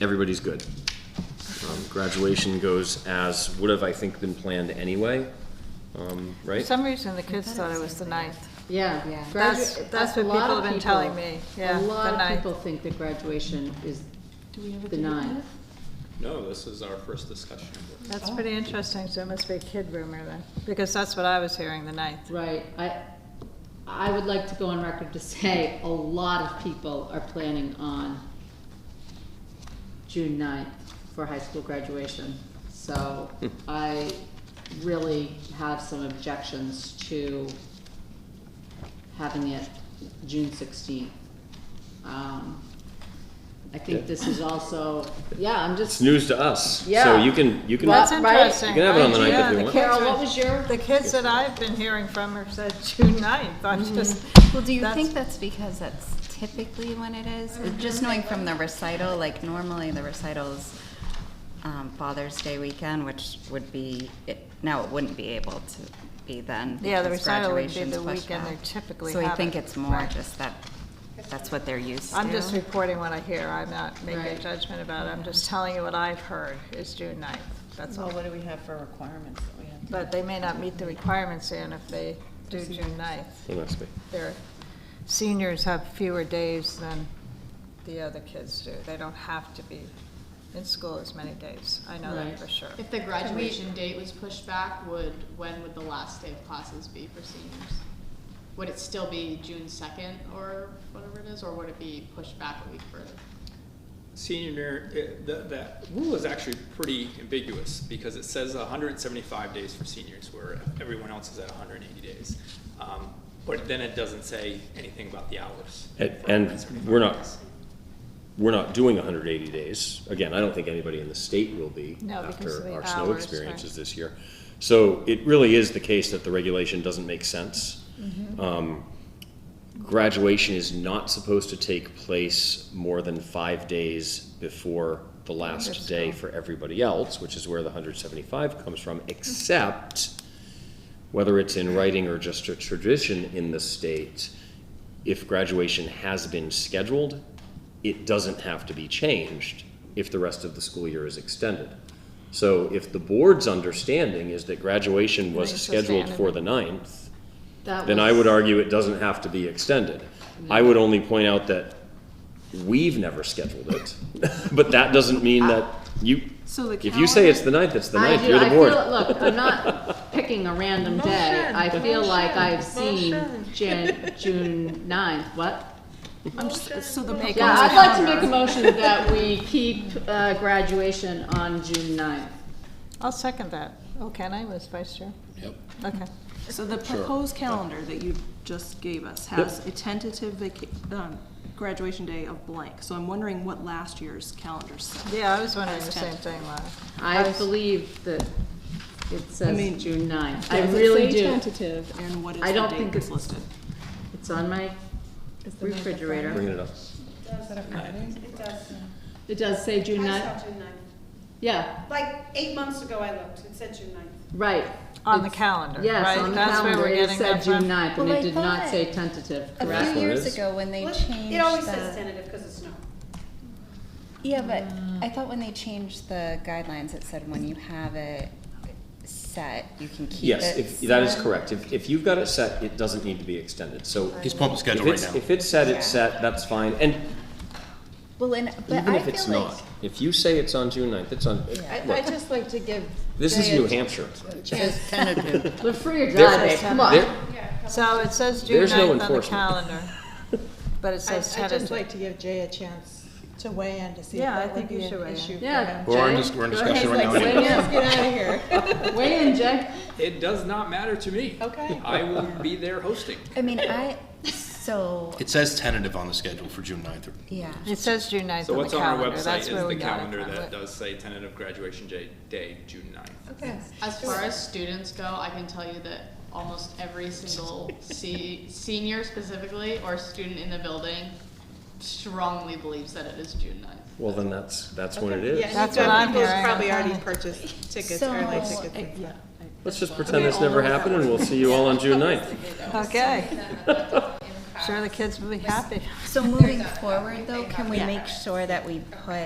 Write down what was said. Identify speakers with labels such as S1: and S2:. S1: everybody's good. Um, Graduation goes as would have, I think, been planned anyway, um,
S2: For
S1: right?
S2: some reason, the kids thought it was the ninth.
S3: Yeah. yeah.
S2: That's- that's what people have been telling me, yeah,
S3: A lot
S2: the
S3: of
S2: ninth.
S3: people think that graduation is the ninth.
S4: No, this is our first discussion.
S2: That's
S5: Oh.
S2: pretty interesting, so it must be a kid rumor then, because that's what I was hearing, the ninth.
S3: Right, I, I would like to go on record to say a lot of people are planning on June 9th for high school graduation. So I really have some objections to having it June sixteenth. Um, I think this is also, yeah, I'm
S1: It's
S3: just,
S1: news to us, so
S3: Yeah.
S1: you can, you can,
S3: Well,
S2: That's
S3: right.
S2: interesting.
S1: You can have it on the
S2: right?
S1: ninth if
S2: Yeah,
S1: you
S2: the
S1: want.
S2: kids
S3: Carol,
S2: were-
S3: what was your?
S2: The kids that I've been hearing from have said June ninth, I'm
S5: Mm-hmm.
S2: just.
S6: Well, do you
S2: that's- Mm-hmm.
S6: think that's because that's typically when it is? Just knowing from the recital, like normally the recital's um, Father's Day weekend, which would be, it- now it wouldn't be able to be then.
S2: Yeah, the
S6: because
S2: recital would be
S6: graduation's
S2: the
S6: pushed
S2: weekend
S6: back.
S2: they typically
S6: So I
S2: have
S6: think
S2: it.
S6: it's more
S2: Right.
S6: just that, that's what they're used to.
S2: I'm just reporting what I hear, I'm not making a
S3: Right.
S2: judgment about it, I'm just telling you what I've heard, is June ninth, that's
S5: So
S2: all.
S5: what do we have for requirements that we have? to-
S2: But they may not meet the requirements, and if they do June ninth,
S1: it must be.
S2: their seniors have fewer days than the other kids do. They don't have to be in school as many days. I know that
S3: Right.
S2: for sure.
S7: If the graduation date was pushed back, would, when would the last day of classes be for seniors? Would it still be June second or whatever it is, or would it be pushed back a week further?
S4: Senior, eh, that, that rule is actually pretty ambiguous because it says hundred and seventy-five days for seniors where everyone else is at hundred and eighty days. Um, But then it doesn't say anything about the hours.
S1: And-
S4: for
S1: and
S4: 175
S1: we're not-
S4: days.
S1: We're not doing hundred eighty days. Again, I don't think anybody in the state will be
S2: No, because of
S1: after
S2: the
S1: our snow
S2: hours,
S1: experiences
S2: right.
S1: this year. So it really is the case that the regulation doesn't make sense.
S2: Mm-hmm.
S1: Um, Graduation is not supposed to take place more than five days before the last day for everybody else, which is where the hundred seventy-five comes from,
S2: Mm-hmm.
S1: except whether it's in writing or just a tradition in the state, if graduation has been scheduled, it doesn't have to be changed if the rest of the school year is extended. So if the board's understanding is that graduation was
S2: Right, so stay
S1: scheduled for the
S2: under-
S1: ninth,
S3: That
S1: then I
S3: was-
S1: would argue it doesn't have to be extended. I would only point out that we've never scheduled it, but that doesn't mean that you,
S2: So the
S1: if you say it's the ninth, it's the
S3: I
S1: ninth,
S3: do-
S1: you're the
S3: I
S1: board.
S3: Feel, look, I'm not picking a random day. I feel like I've seen Jan, June 9th. What?
S6: So the big
S3: Yeah, I'd like to make a motion that we keep uh, graduation on June 9th.
S2: I'll second that. Oh, can I, was vice chair?
S8: Yep.
S2: Okay.
S5: So the proposed calendar that you just gave us has a tentative vaca- um, graduation day of blank. So I'm wondering what last year's calendar said.
S2: Yeah, I was wondering the same thing, Laura.
S3: I believe that it
S5: mean,
S3: says June 9th. I really do.
S5: Tentative and what is
S3: I
S5: the
S3: don't
S5: date
S3: think
S5: that's
S3: it-
S5: listed?
S3: It's on my refrigerator.
S1: Bringing it up.
S9: It does.
S3: It does say June
S9: I
S3: 9th.
S9: saw June ninth.
S3: Yeah,
S9: Like, eight months ago I looked, it said June ninth.
S3: right.
S2: On the
S3: It's-
S2: calendar,
S3: Yes,
S2: right?
S3: on the
S2: That's where
S3: calendar.
S2: we're
S3: It
S2: getting
S3: said
S2: that
S3: June
S2: from.
S3: 9th, and
S6: Well,
S3: it
S6: I
S3: did not
S6: thought
S3: say
S6: it-
S3: tentative,
S6: A
S1: That's
S3: correct?
S1: what
S6: few
S1: it
S6: years
S1: is.
S6: ago when they
S9: Well,
S6: changed
S9: It always
S6: the-
S9: says tentative because of snow.
S6: Yeah, but
S2: Mm.
S6: I thought when they changed the guidelines, it said when you have it set, you can keep it.
S1: Yes, if, that is
S6: set.
S1: correct. If, if you've got it set, it doesn't need to be extended, so.
S8: He's pumping
S1: If
S8: schedule right
S1: it's,
S8: now.
S1: if it's set,
S6: Yeah.
S1: it's set, that's fine, and
S6: Well, and, but
S1: even
S6: I
S1: if it's
S6: feel like
S1: not, if you say it's on June ninth, it's on,
S10: I
S1: look,
S10: just like to give.
S1: this is
S10: Jay a
S1: New Hampshire.
S10: Chance tentative.
S3: We're free or
S1: There-
S3: die, babe, come on.
S1: There-
S2: So it says June
S1: There's no
S2: ninth on the
S1: enforcement.
S2: calendar, but it
S10: I
S2: says
S10: I'd just
S2: tentative.
S10: like to give Jay a chance to weigh in to see if
S2: Yeah, I
S10: that would
S2: think you
S10: be
S2: should weigh
S10: an
S2: in.
S10: issue. for
S3: Yeah.
S10: him.
S8: We're in
S3: Jay,
S8: dis- we're in
S3: go
S8: discussion
S3: ahead,
S8: right
S3: like,
S8: now
S3: weigh
S10: Let's
S3: in.
S10: get out of here.
S3: Weigh in, Jay.
S4: It does not matter to me.
S10: Okay.
S4: I will be there hosting.
S6: I mean, I, so,
S8: It says tentative on the schedule for June 9th.
S6: yeah.
S2: It says June ninth
S4: So
S2: on the
S4: what's on our
S2: calendar,
S4: website
S2: that's
S4: is
S2: where we
S4: the
S2: got it
S4: calendar
S2: from.
S4: that does say tentative graduation day, day, June ninth.
S7: As far as students go, I can tell you that almost every single se- senior specifically or student in the building strongly believes that it is June ninth.
S1: Well, then that's, that's when
S10: Yeah,
S1: it is.
S10: and you've
S2: That's what
S10: got
S2: I'm
S10: people
S2: hearing.
S10: who's probably already purchased tickets,
S6: So-
S10: early tickets.
S5: Yeah.
S1: Let's just pretend this never happened, and we'll see you all on June ninth.
S2: Okay. Sure, the kids will be happy.
S6: So moving forward though, can we make sure that we put